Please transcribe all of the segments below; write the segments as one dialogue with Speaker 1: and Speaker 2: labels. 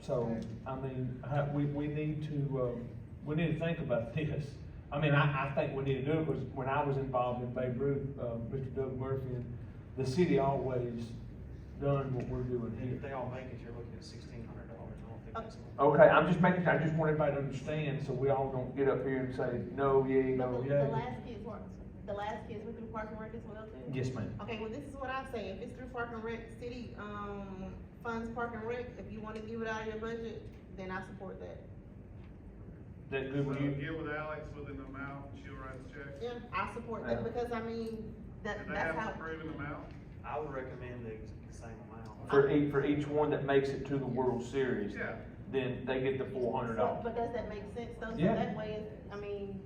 Speaker 1: So, I mean, I, we, we need to, um, we need to think about this. I mean, I, I think we need to do it, because when I was involved in Babe Ruth, uh, Mr. Doug Murphy, and the city always done what we're doing
Speaker 2: And if
Speaker 1: here.
Speaker 2: they all make it, you're looking at sixteen hundred dollars, I don't think that's.
Speaker 1: Okay, I'm just making, I just want everybody to understand, so we all don't get up here and say, no, yay, no,
Speaker 3: But The the
Speaker 1: yay.
Speaker 3: last kids work, the last kids went through Park and Rec as well too?
Speaker 1: Yes, ma'am.
Speaker 3: Okay, well, this is what I say, if it's through Park and Rec, city, um, funds Park and Rec, if you wanna give it out of your budget, then I support that.
Speaker 1: That good
Speaker 4: So
Speaker 1: with
Speaker 4: you
Speaker 1: you?
Speaker 4: get with Alex with an amount, she'll write a check.
Speaker 3: Yeah, I support
Speaker 1: Yeah.
Speaker 3: that, because I mean, that,
Speaker 4: Do they have
Speaker 3: that's
Speaker 4: to
Speaker 3: how,
Speaker 4: approve an amount?
Speaker 2: I would recommend the ex- same amount.
Speaker 1: For each, for each one that makes it to the World Series,
Speaker 4: Yeah,
Speaker 1: then they get the four hundred
Speaker 3: so,
Speaker 1: dollars.
Speaker 3: but does that make sense though? So
Speaker 1: Yeah.
Speaker 3: That way, it's- I mean,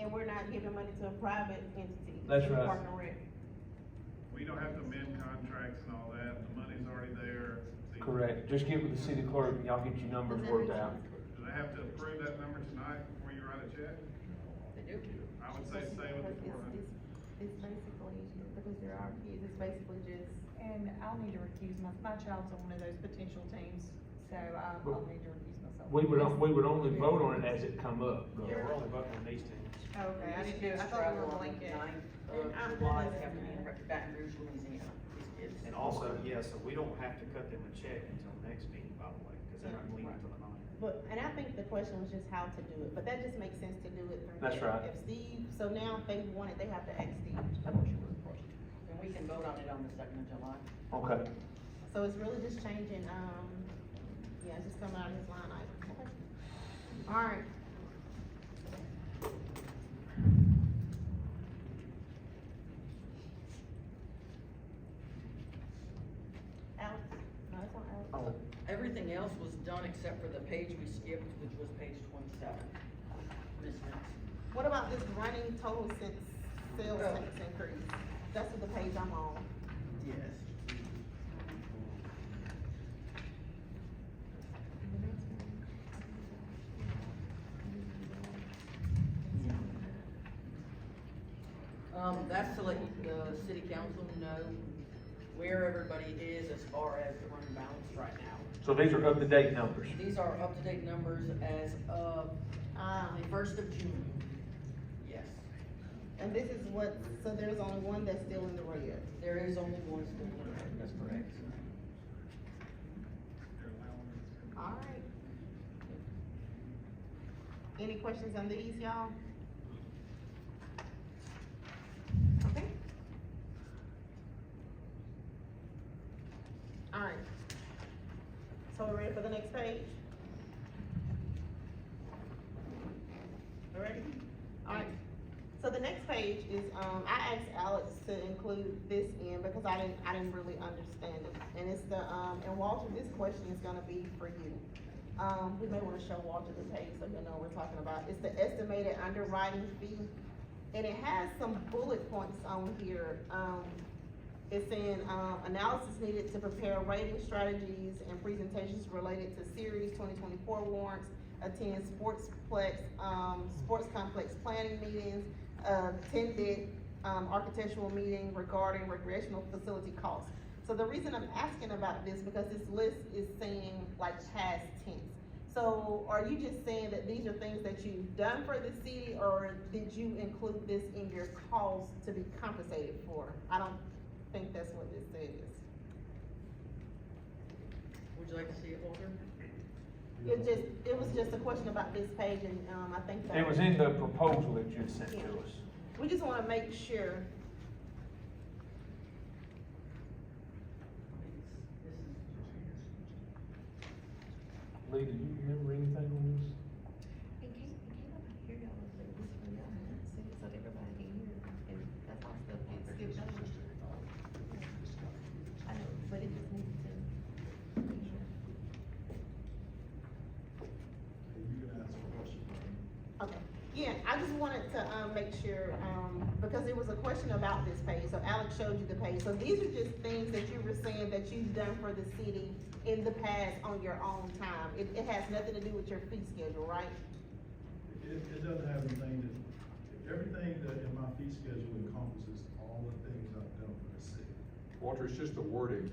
Speaker 3: and we're not giving money to a private entity.
Speaker 1: That's
Speaker 3: through
Speaker 1: right.
Speaker 3: Park and Rec.
Speaker 4: we don't have to amend contracts and all that, the money's already there. See,
Speaker 1: Correct, just get with the city clerk and y'all get your numbers
Speaker 3: Does that
Speaker 1: worked
Speaker 3: make
Speaker 1: out.
Speaker 4: Do they have to approve that number tonight before you write a check? I would say stay with the four
Speaker 3: It's-
Speaker 4: hundred.
Speaker 3: it's- It's basically, because there are kids, it's basically just
Speaker 5: And I'll need to recuse my, my child's on one of those potential teams, so I, I'll need to recuse myself.
Speaker 1: We would, on- we would only vote on it as it come up. though.
Speaker 2: Yeah, we're only voting on these teams.
Speaker 5: Okay, I didn't
Speaker 6: These
Speaker 5: do, it. I
Speaker 6: kids
Speaker 5: thought we were on uh,
Speaker 6: travel
Speaker 5: the
Speaker 6: on the
Speaker 5: weekend.
Speaker 6: ninth
Speaker 3: And I'm
Speaker 6: of July,
Speaker 3: done
Speaker 6: they have to be
Speaker 3: listening.
Speaker 6: in Ra- Baton Rouge, Louisiana, these kids.
Speaker 2: And also, yeah, so we don't have to cut them a check until next meeting, by the way, because they're not leaving until the ninth.
Speaker 3: But, and I think the question was just how to do it, but that just makes sense to do it through.
Speaker 1: That's
Speaker 3: Dave.
Speaker 1: right.
Speaker 3: If Steve, so now if they want it, they have to ask Steve.
Speaker 6: And we can vote on it on the second of July.
Speaker 1: Okay,
Speaker 3: So it's really just changing, um, yeah, it's just coming out of his line item. Alright. Alex, no, it's not Alex.
Speaker 1: oh,
Speaker 6: Everything else was done except for the page we skipped, which was page twenty-seven. Ms. Nelson.
Speaker 3: What about this running total since sales tax increase? That's what the page I'm on.
Speaker 6: Yes. Um, that's to let the city council know where everybody is as far as the running balance right now.
Speaker 1: so these are up-to-date numbers.
Speaker 6: These are up-to-date numbers as of
Speaker 3: Um,
Speaker 6: the first of June. Yes,
Speaker 3: and this is what, so there's only one that's still in the red.
Speaker 6: there is only one school in that's correct.
Speaker 3: Alright. Any questions on these, y'all? Okay. Alright. So we're ready for the next page? We Ready? Alright. So the next page is, um, I asked Alex to include this in because I didn't, I didn't really understand it. And it's the, um, and Walter, this question is gonna be for you. Um, we may wanna show Walter the page so he'll know what we're talking about. It's the estimated underwriting fee. And it has some bullet points on here. Um, it's saying, um, analysis needed to prepare rating strategies and presentations related to series twenty twenty-four warrants, attend sportsplex, um, sports complex planning meetings, attended, um, architectural meeting regarding recreational facility costs. So the reason I'm asking about this, because this list is saying like past tense. So are you just saying that these are things that you've done for the city, or did you include this in your cost to be compensated for? I don't think that's what this says.
Speaker 6: Would you like to see it, Walter?
Speaker 3: It just, it was just a question about this page, and, um, I think that.
Speaker 1: It was in the proposal that you had sent to us.
Speaker 3: We just wanna make sure,
Speaker 6: This is
Speaker 1: Lee, do you remember anything on this?
Speaker 7: It came, it came up here, y'all, was like, this for y'all, and that's it, so everybody can hear, and that's all stuff gets skipped over. I know, but it just needs to. be here.
Speaker 3: okay, yeah, I just wanted to, um, make sure, um, because it was a question about this page, so Alex showed you the page. So these are just things that you were saying that you've done for the city in the past on your own time. It, it has nothing to do with your fee schedule, right?
Speaker 8: It, it doesn't have anything that, everything that in my fee schedule encompasses all the things I've done for the city.
Speaker 9: Walter, it's just the wording